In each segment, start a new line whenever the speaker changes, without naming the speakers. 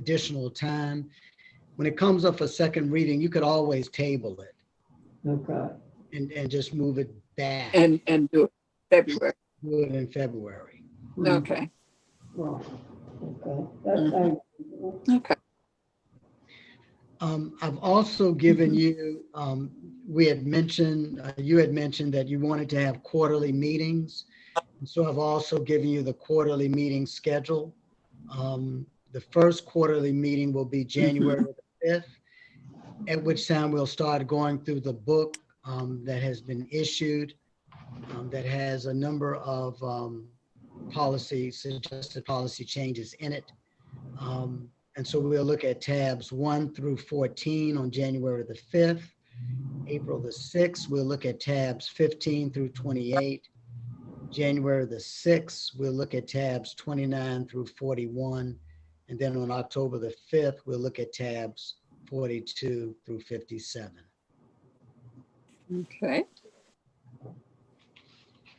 additional time. When it comes up for second reading, you could always table it
Okay,
and, and just move it back,
and, and do it February.
do it in February.
Mm,
Okay,
well, okay, that, I,
okay.
Um, I've also given you, um, we had mentioned, uh, you had mentioned that you wanted to have quarterly meetings. So I've also given you the quarterly meeting schedule. Um, the first quarterly meeting will be January the fifth, at which time we'll start going through the book, um, that has been issued, um, that has a number of, um, policy, suggested policy changes in it. Um, and so we'll look at tabs one through 14 on January the 5th. April the 6th, we'll look at tabs 15 through 28. January the 6th, we'll look at tabs 29 through 41. And then on October the 5th, we'll look at tabs 42 through 57.
Okay.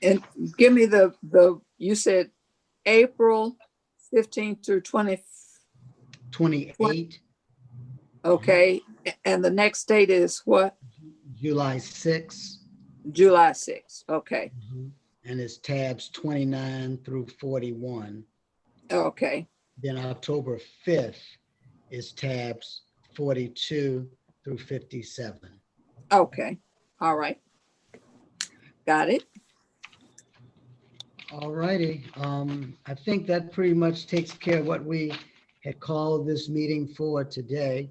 And give me the, the, you said April fifteenth through twenty,
28,
okay, a- and the next date is what?
July 6th,
July sixth, okay,
and it's tabs 29 through 41.
okay,
Then October 5th is tabs 42 through 57.
okay, all right. Got it?
All righty, um, I think that pretty much takes care of what we had called this meeting for today.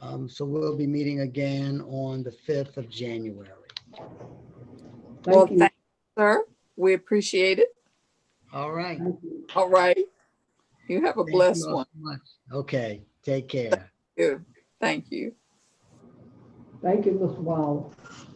Um, so we'll be meeting again on the 5th of January.
Mm-hmm. Well,
thank you,
thank you, sir. We appreciate it.
All right.
thank you.
All right. You have a
Thank you
blessed
all
one.
so much. Okay, take care.
too. Thank you.
Thank you, Ms. Wallace.